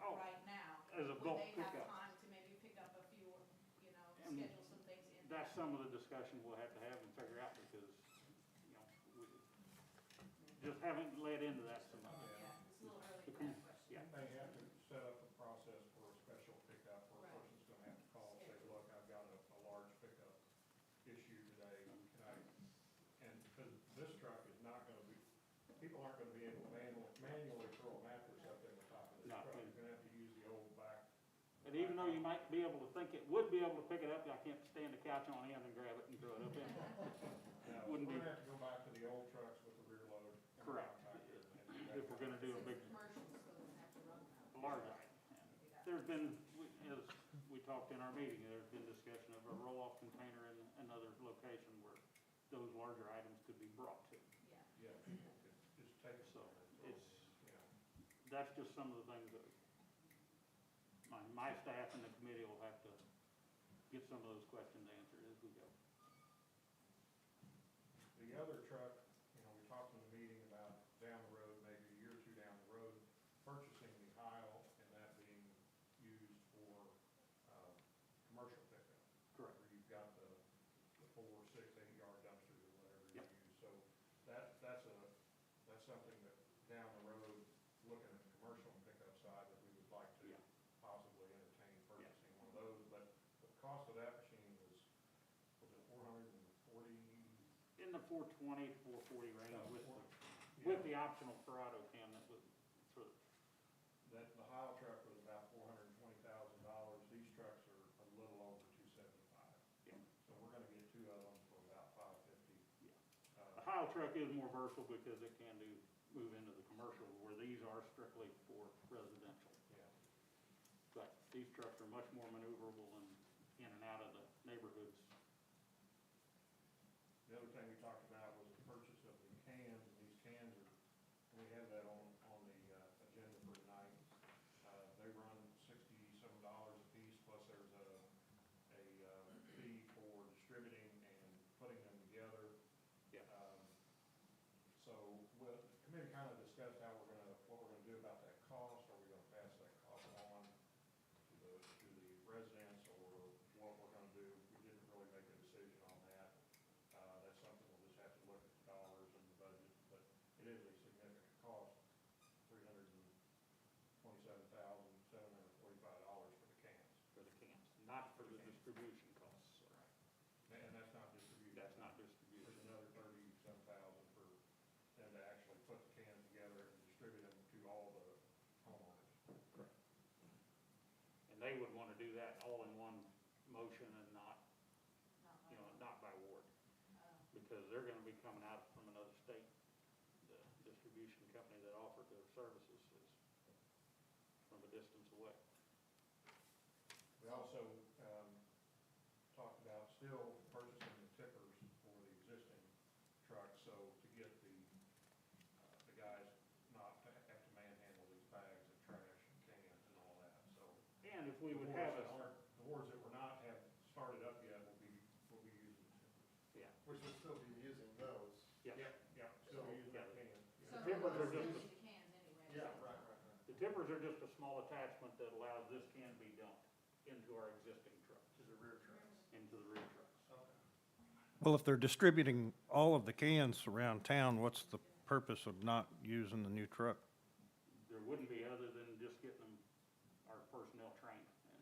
Oh. that's some of the discussion we'll have to have and figure out because, you know, we just haven't led into that so much. Yeah, it's a little early for that question. Yeah. They have to set up a process for a special pickup where a Right. person's gonna have to call and say, look, I've got a, a large pickup issue today, can I? And, because this truck is not gonna be, people aren't gonna be able to manually, manually throw a mattress up in the top of this No. truck. You're gonna have to use the old back. And even though you might be able to think it would be able to pick it up, I can't stand the couch on end and grab it and throw it up in. Now, Wouldn't be- We're gonna have to go back to the old trucks with the rear load. and Correct. back here and do that. If we're gonna do a Since big, it's commercial, so they have to run that. large item. There's been, we- as we talked in our meeting, there's been discussion of a roll-off container in another location where those larger items could be brought to. Yeah, Yeah, it's- just take So, some. it's- You know. That's just some of the things that my, my staff and the committee will have to get some of those questions answered as we go. The other truck, you know, we talked in the meeting about down the road, maybe a year or two down the road, purchasing the aisle and that being used for, um, commercial pickup. Correct. Where you've got the, the four, six, eight yard dumpsters or whatever you Yep. use. So that, that's a, that's something that down the road, looking at the commercial pickup side, that we would like Yeah. to possibly entertain purchasing one of those. But the cost of that machine was, was it four hundred and forty In the four twenty, four forty range with, the- yeah. with the optional Corrado cam that would, sort of, That, the Heil truck was about four hundred and twenty thousand dollars, these trucks are a little over two seventy-five. yeah, So we're gonna get two of them for about five fifty. yeah. The Uh, Heil truck is more versatile because it can do, move into the commercial where these are strictly for residential. yeah, But these trucks are much more maneuverable and in and out of the neighborhoods. the other thing we talked about was the purchase of the cans, and these cans are, we have that on, on the, uh, agenda for tonight. Uh, they run sixty-seven dollars a piece, plus there's a, a, uh, fee for distributing and putting them together. Yeah. Um, So, well, the committee kind of discussed how we're gonna, what we're gonna do about that cost, are we gonna pass that cost on to the, to the residents, or what we're gonna do, we didn't really make a decision on that. Uh, that's something we'll just have to look at the dollars and the budget, but it is a significant cost, three hundred and twenty-seven thousand, seven hundred and forty-five dollars for the cans. For the cans, not for the distribution costs. Right. And that's not distributed. That's not There's distribution. another thirty-some thousand for them to actually put the cans together and distribute them to all the homeowners. And they would want to do that all in one motion and not, not you know, much. not by ward, Uh, because they're going to be coming out from another state. The distribution company that offered their services is from a distance away. We also, um, talked about still purchasing the tippers for the existing trucks, so to get the, uh, the guys not to have to manhandle these bags of trash and cans and all that, so. And if we would have The a, wards that aren't- The wards that were not have started up yet will be, will be using tippers. yeah, Which would still be using those. yeah. Yeah, still using that can. Uh, So The they're tippers are mostly just- using the cans anyway. Yeah, right, right, The tippers are just a small attachment that allows this can be dumped into our existing trucks, to the rear trucks. into the rear trucks. Okay. Well, if they're distributing all of the cans around town, what's the purpose of not using the new truck? There wouldn't be other than just getting them, our personnel trained and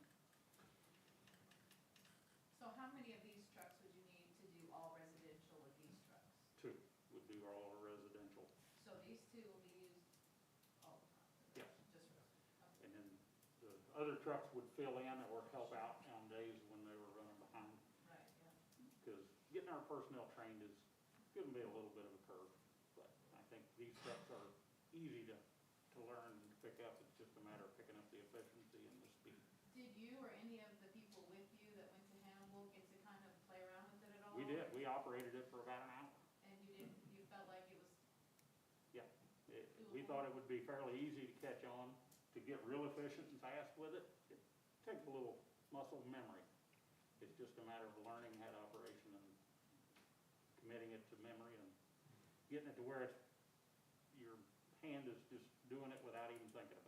So how many of these trucks would you need to do all residential with these trucks? two would do all our residential. So these two will be used all the time? Yes. Just residential. And then the other trucks would fill in or help out on days when they were running behind. Right, yeah. Because getting our personnel trained is gonna be a little bit of a curve. But I think these trucks are easy to, to learn and to pick up. It's just a matter of picking up the efficiency and the speed. Did you or any of the people with you that went to Hannibal get to kind of play around with it at all? We did, we operated it for about an hour. And you didn't, you felt like it was, Yeah, it, we thought it would be fairly easy to catch on, to get real efficient and fast with it. It takes a little muscle memory. It's just a matter of learning that operation and committing it to memory and getting it to where it's, your hand is just doing it without even thinking about it.